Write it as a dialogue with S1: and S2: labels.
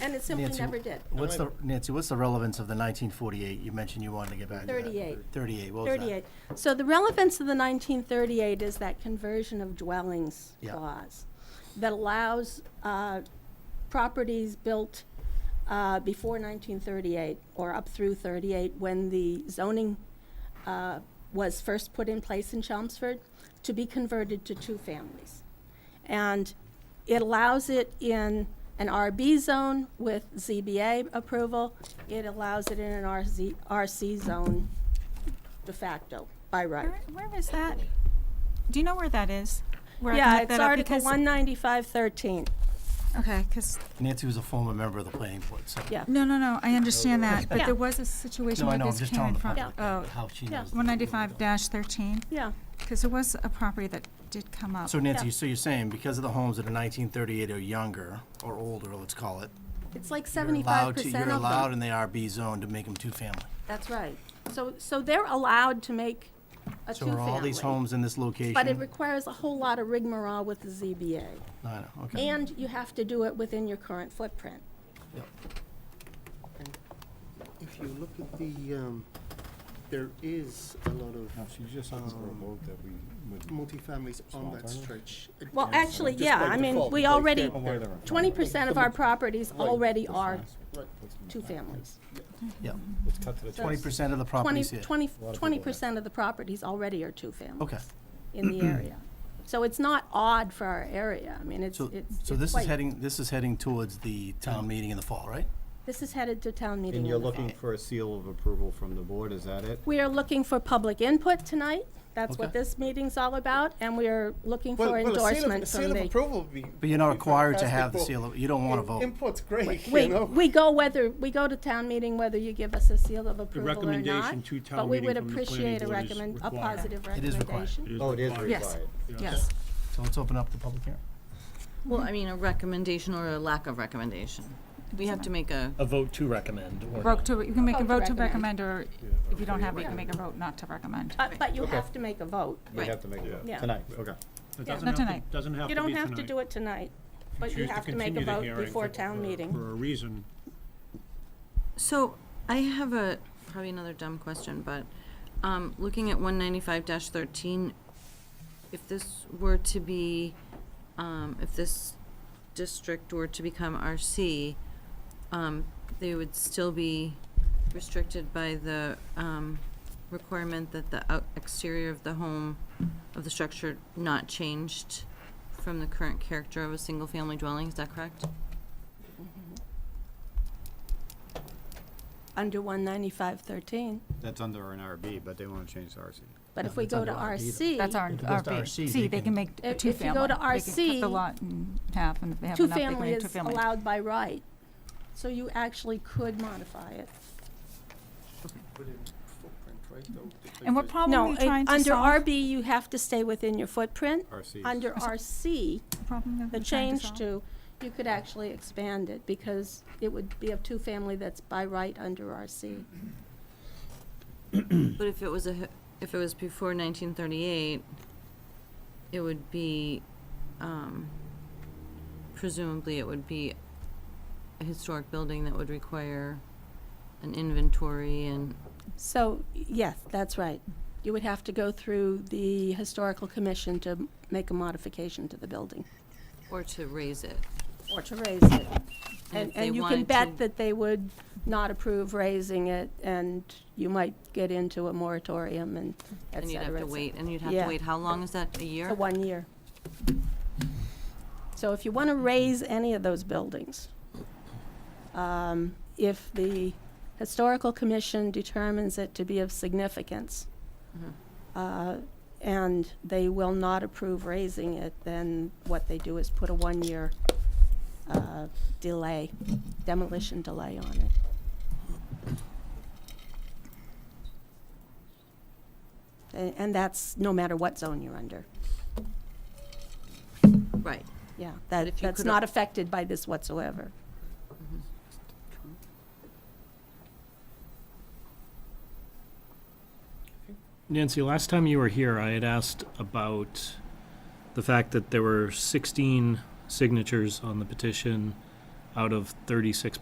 S1: And it simply
S2: Nancy,
S1: never did.
S2: What's the, Nancy, what's the relevance of the 1948? You mentioned you wanted to get back to that.
S1: 38.
S2: 38, what was that?
S1: 38. So the relevance of the 1938 is that conversion of dwellings
S2: Yeah.
S1: clause that allows uh, properties built uh, before 1938 or up through 38, when the zoning uh, was first put in place in Chelmsford, to be converted to two families. And it allows it in an RB zone with ZBA approval. It allows it in an RZ, RC zone de facto, by right.
S3: Where, where is that? Do you know where that is? Where I can
S1: Yeah,
S3: look
S1: it's
S3: that up?
S1: Article
S3: Because-
S1: one ninety-five thirteen,
S3: Okay, because,
S2: Nancy was a former member of the planning board, so.
S1: yeah.
S3: no, no, no, I understand that, but
S1: Yeah.
S3: there was a
S2: No,
S3: situation
S2: I
S3: where
S2: know, I'm
S3: this
S2: just
S3: came
S2: telling
S3: in
S2: the
S3: front.
S2: public
S3: Oh,
S2: that- how she
S1: Yeah.
S2: knows. the-
S3: 195-13,
S1: Yeah,
S3: because there was a property that did come up.
S2: So Nancy,
S1: Yeah.
S2: so you're saying because of the homes that are 1938 or younger, or older, let's call it,
S1: it's like
S2: you're
S1: seventy-five
S2: allowed to,
S1: percent
S2: you're
S1: of
S2: allowed
S1: them.
S2: in the RB zone to make them two-family.
S1: That's right. So, so they're allowed to make a
S2: So are all these
S1: two-family.
S2: homes in this location?
S1: But it requires a whole lot of rigmarole with the ZBA.
S2: No, I know, okay.
S1: And you have to do it within your current footprint.
S4: If you look at the, um, there is a lot of
S5: No, she just asked for a vote that we would.
S4: multifamilies on
S5: Small
S4: that
S5: town.
S4: stretch. It-
S1: Well,
S4: it's
S1: actually,
S4: just
S1: yeah,
S4: by
S1: I mean,
S4: default,
S1: we
S4: because
S1: already,
S4: they're-
S5: where they're on.
S1: twenty percent of our properties
S4: Right.
S1: already are
S4: Right.
S1: two families.
S2: Yeah,
S5: Let's cut to the chase.
S2: 20% of the
S1: Twenty,
S2: properties here.
S1: twenty,
S5: A lot of
S1: twenty
S5: people have.
S1: percent of the properties already are two families.
S2: Okay.
S1: In the area. So it's not odd for our area. I mean, it's,
S2: So,
S1: it's.
S2: so
S1: it's
S2: this is
S1: quite-
S2: heading, this is heading towards the town meeting in the fall, right?
S1: This is headed to town meeting.
S6: And you're
S1: in the fall.
S6: looking for a seal of approval from the board, is that it?
S1: We are looking for public input tonight. That's what
S2: Okay.
S1: this meeting's all about, and we are looking
S4: Well,
S1: for
S4: well, a seal of- a
S1: endorsement
S4: seal
S1: from
S4: of
S1: the.
S4: approval would be.
S2: But you're not required to have the seal, of- you don't want to vote.
S4: Input's great, you
S1: We,
S4: know?
S1: we go whether, we go to town meeting whether you give us a seal of approval or not.
S7: recommendation to town
S1: But we
S7: meeting
S1: would
S7: from the planning
S1: appreciate a
S7: board is
S1: recommend, a
S7: required.
S1: positive
S2: It is required.
S1: recommendation.
S7: is
S6: Oh, it is
S7: required.
S3: Yes.
S6: required.
S3: Yes.
S2: So let's open up the public hearing.
S8: Well, I mean, a recommendation or a lack of recommendation. We have to make a,
S7: A vote to recommend or
S3: Vote
S7: not.
S3: to, you can make a
S1: Vote
S3: vote
S1: to
S3: to recommend, or if you don't have it, you can make a vote not to recommend.
S1: But, but you have to make a vote.
S6: We have to make a
S1: Yeah.
S6: vote tonight, okay.
S7: It
S1: Yeah.
S7: doesn't
S3: Not
S7: have to-
S3: tonight.
S7: Doesn't have to
S1: You
S7: be
S1: don't
S7: tonight.
S1: have to do it tonight, but you
S7: Choose to
S1: have to make a
S7: continue the
S1: vote
S7: hearing
S1: before
S7: for-
S1: town
S7: for-
S1: meeting.
S7: For a reason.
S8: so I have a, probably another dumb question, but, um, looking at one ninety-five thirteen, if this were to be, um, if this district were to become RC, um, they would still be restricted by the, um, requirement that the out- exterior of the home, of the structure not changed from the current character of a single-family dwelling, is that correct?
S1: Mm-hmm. Under one ninety-five thirteen,
S6: That's under an RB, but they want to change to RC.
S1: but if we go to RC.
S3: That's our,
S2: If it
S3: our
S2: goes to RC, they
S3: see, they
S2: can-
S3: can make
S1: If-
S3: two
S1: if you go
S3: family.
S1: to
S3: They can cut
S1: RC,
S3: the lot in half, and if they have enough, they can
S1: Two-family
S3: make two
S1: is
S3: family.
S1: allowed by right, so you actually could modify it.
S4: Within footprint, right, though,
S3: And what
S4: because-
S3: problem are
S1: No,
S3: you
S1: it-
S3: trying to
S1: under
S3: solve?
S1: RB, you have to stay within your footprint.
S6: RC.
S1: Under RC,
S3: Problem that
S1: the
S3: we're trying
S1: change
S3: solve?
S1: to, you could actually expand it, because it would be a two-family that's by right under RC.
S8: But if it was a, h- if it was before nineteen thirty-eight, it would be, um, presumably it would be a historic building that would require an inventory and,
S1: So, yes, that's right. You would have to go through the historical commission to m- make a modification to the building,
S8: or to raise it.
S1: or to raise it.
S8: And
S1: And,
S8: if they
S1: and you can
S8: wanted
S1: bet
S8: to-
S1: that they would not approve raising it, and you might get into a moratorium and et
S8: And you'd have
S1: cetera,
S8: to
S1: et
S8: wait,
S1: cetera.
S8: and you'd have
S1: Yeah.
S8: to wait, how long is that, a year?
S1: For one year. So if you want to raise any of those buildings, um, if the Historical Commission determines it to be of significance,
S8: Mhm.
S1: uh, and they will not approve raising it, then what they do is put a one-year uh, delay, demolition delay on it. A- And that's no matter what zone you're under.
S8: Right.
S1: Yeah, that,
S8: if you
S1: that's
S8: could
S1: not
S8: al-
S1: affected by this whatsoever.
S9: Nancy, last time you were here, I had asked about the fact that there were 16 signatures on the petition out of thirty-six